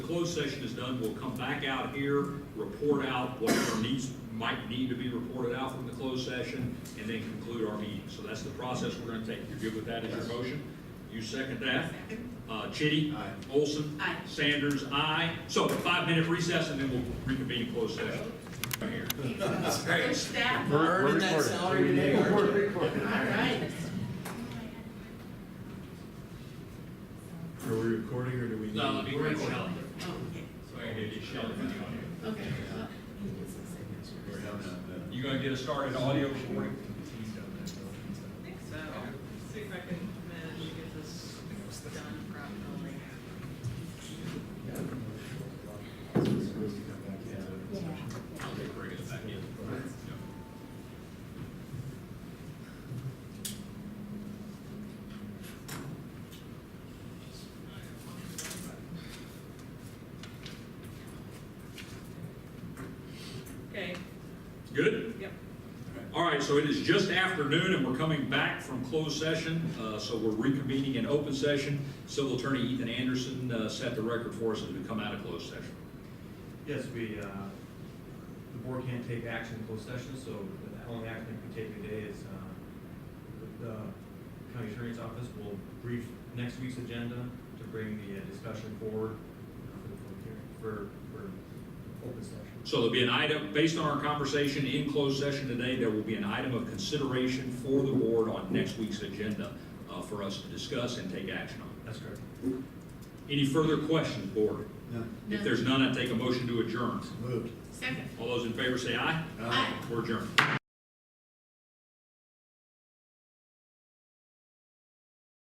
closed session is done, we'll come back out here, report out whatever needs, might need to be reported out from the closed session, and then conclude our meeting. So that's the process we're gonna take. You're good with that as your motion? You second that? Uh, Chitty? Aye. Olson? Aye. Sanders, aye. So five-minute recess, and then we'll reconvene closed session. Right here. Push that. We're- Earning that recording. salary today, aren't you? All right. Are we recording or do we? No, let me grab Shelley. Oh, okay. So I can get Shelley on here. Okay. We're having a- You gonna get us started audio recording? I think so. See if I can manage to get this done properly. I'll take bring us back in. Yeah. Okay, Good? yep. All right, so it is just afternoon, and we're coming back from closed session, uh, so we're reconvening in open session. Civil Attorney Ethan Anderson uh, set the record for us as we come out of closed session. Yes, we, uh, the board can't take action in closed session, so the only action we can take today is uh, the county attorney's office will brief next week's agenda to bring the uh, discussion forward for the public hearing, for, for open session. So there'll be an item, based on our conversation in closed session today, there will be an item of consideration for the board on next week's agenda uh, for us to discuss and take action on. That's correct. Any further questions, board? No, If there's none, I take a motion to adjourn. moved. Second. All those in favor say aye. Aye. Aye. We're adjourned.